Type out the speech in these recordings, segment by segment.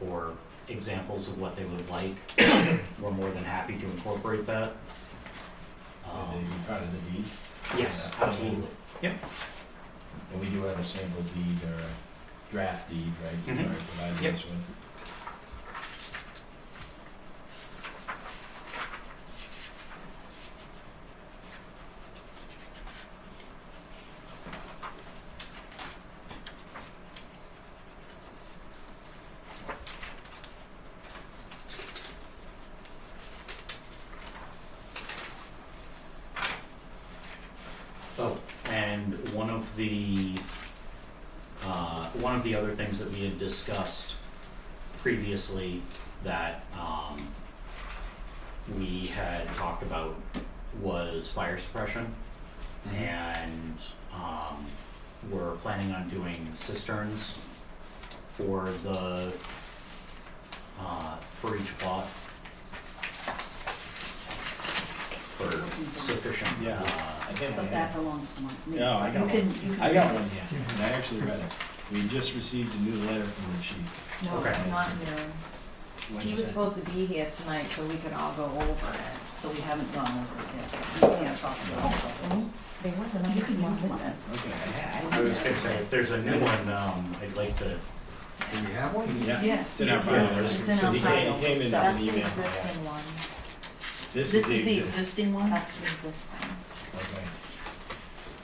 or examples of what they would like, we're more than happy to incorporate that. Would they be Um, part of the deed? yes, absolutely. And we do have a sample deed or a draft deed, right? Mhm. Or provided Yep. this one. Oh, and one of the, uh, one of the other things that we had discussed previously that, um, we had talked about was fire suppression. And, um, we're planning on doing cisterns for the, uh, for each plot. For sufficient, Yeah. uh, I think I But have. that belongs to my- me. No, I got You can, one. you can. I got one, yeah, and I actually read it. We just received a new letter from the chief. No, Okay. it's not new. What He is was it? supposed to be here tonight so we could all go over it. So we haven't gone over it yet. He's gonna talk about it. There was another. You can one, use wasn't this. Okay, I I was gonna say, if there's a new one, um, I'd like to, Do we have one? Yeah. Yes. It's in our yeah, file. It's in our He came- file. he came in stuff. as an That's email. the yeah. existing one. This This is the exist- existing one? That's the existing. Okay.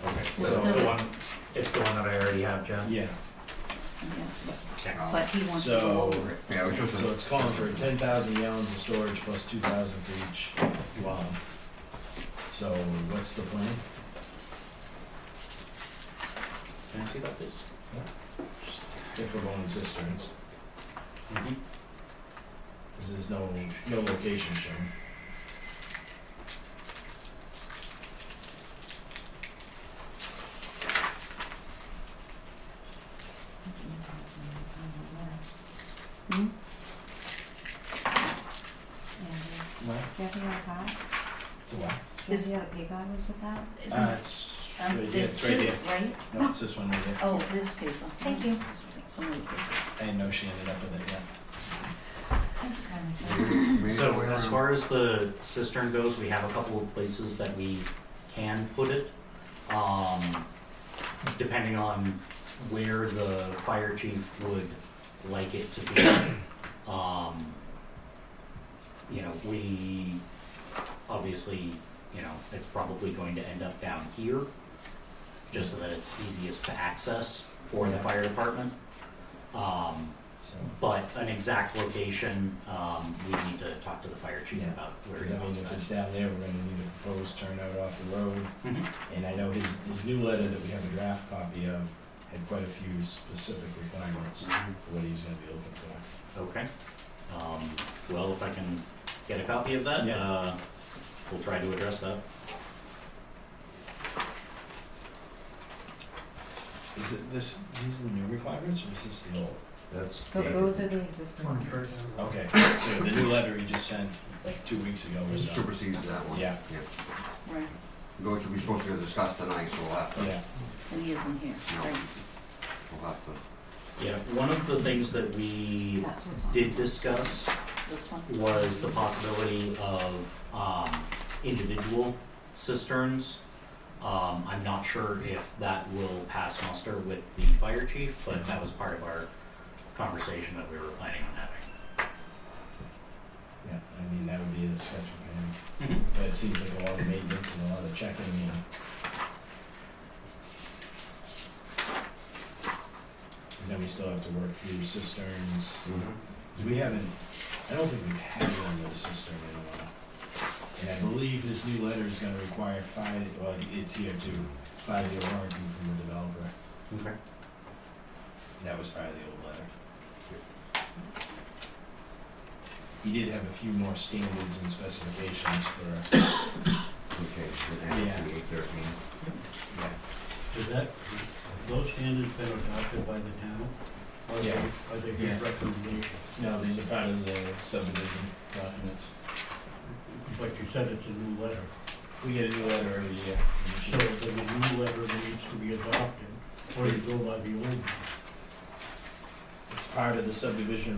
so What's it's the the- one, it's the one that I already have, Jen? Yeah, Yeah, Okay. But he wants to So- go over it. Yeah, we just, so it's calling for ten thousand gallons of storage plus two thousand for each dwelling. So what's the plan? Can I see about this? If we're going cisterns, Mm-hmm. because there's no, no location shown. Hmm? Yeah, What? do you have the other card? The what? Do you have the other paper I was with that? Isn't Uh, it- it's um, right here, there's it's right two, here. Right? No, it's this one right here. Oh, this paper. Thank you. Somebody did. I didn't know she ended up with it yet. So as far as the cistern goes, we have a couple of places that we can put it. Um, depending on where the fire chief would like it to be. Um, you know, we, obviously, you know, it's probably going to end up down here, just so that it's easiest to access for the fire department. Um, So, but an exact location, um, we need to talk to the fire chief Yeah. about where because he I mean, wants if it's that. down there, we're gonna need a proposed turnout off the road. Mhm. And I know his, his new letter that we have a draft copy of had quite a few specific requirements for what he's gonna be looking for. Okay, um, well, if I can get a copy of that, Yeah. uh, we'll try to address that. Is it this, these are the new requirements or is this the old? That's. Th- Those are the existing One ones. first. Okay, so the new letter he just sent like two weeks ago or so. Supersedes that one. Yeah. Right, Which we're supposed to discuss tonight, so we'll have to, Yeah, and he isn't here, right? we'll have to. Yeah, one of the things that we That's what's on. did discuss This one? was the possibility of, um, individual cisterns. Um, I'm not sure if that will pass muster with the fire chief, but that was part of our conversation that we were planning on having. yeah, I mean, that would be a schedule for him. Mhm. But it seems like a lot of maintenance and a lot of checking and Cause then we still have to work through cisterns, 'Cause we haven't, I don't think we've had one with a cistern in a while. And I believe this new letter is gonna require five, well, it's here too, five-year warranty from the developer, Okay. that was probably the old letter. He did have a few more standards and specifications for, Okay, so then it's Yeah. the eight thirteen. yeah, Is that, those standards been adopted by the town? Or Yeah. Are they Yeah. good recommendations? No, these are part of the subdivision documents. But you said it's a new letter. We get a new letter every year. So if there's a new letter that needs to be adopted, or you go by the old one? It's part of the subdivision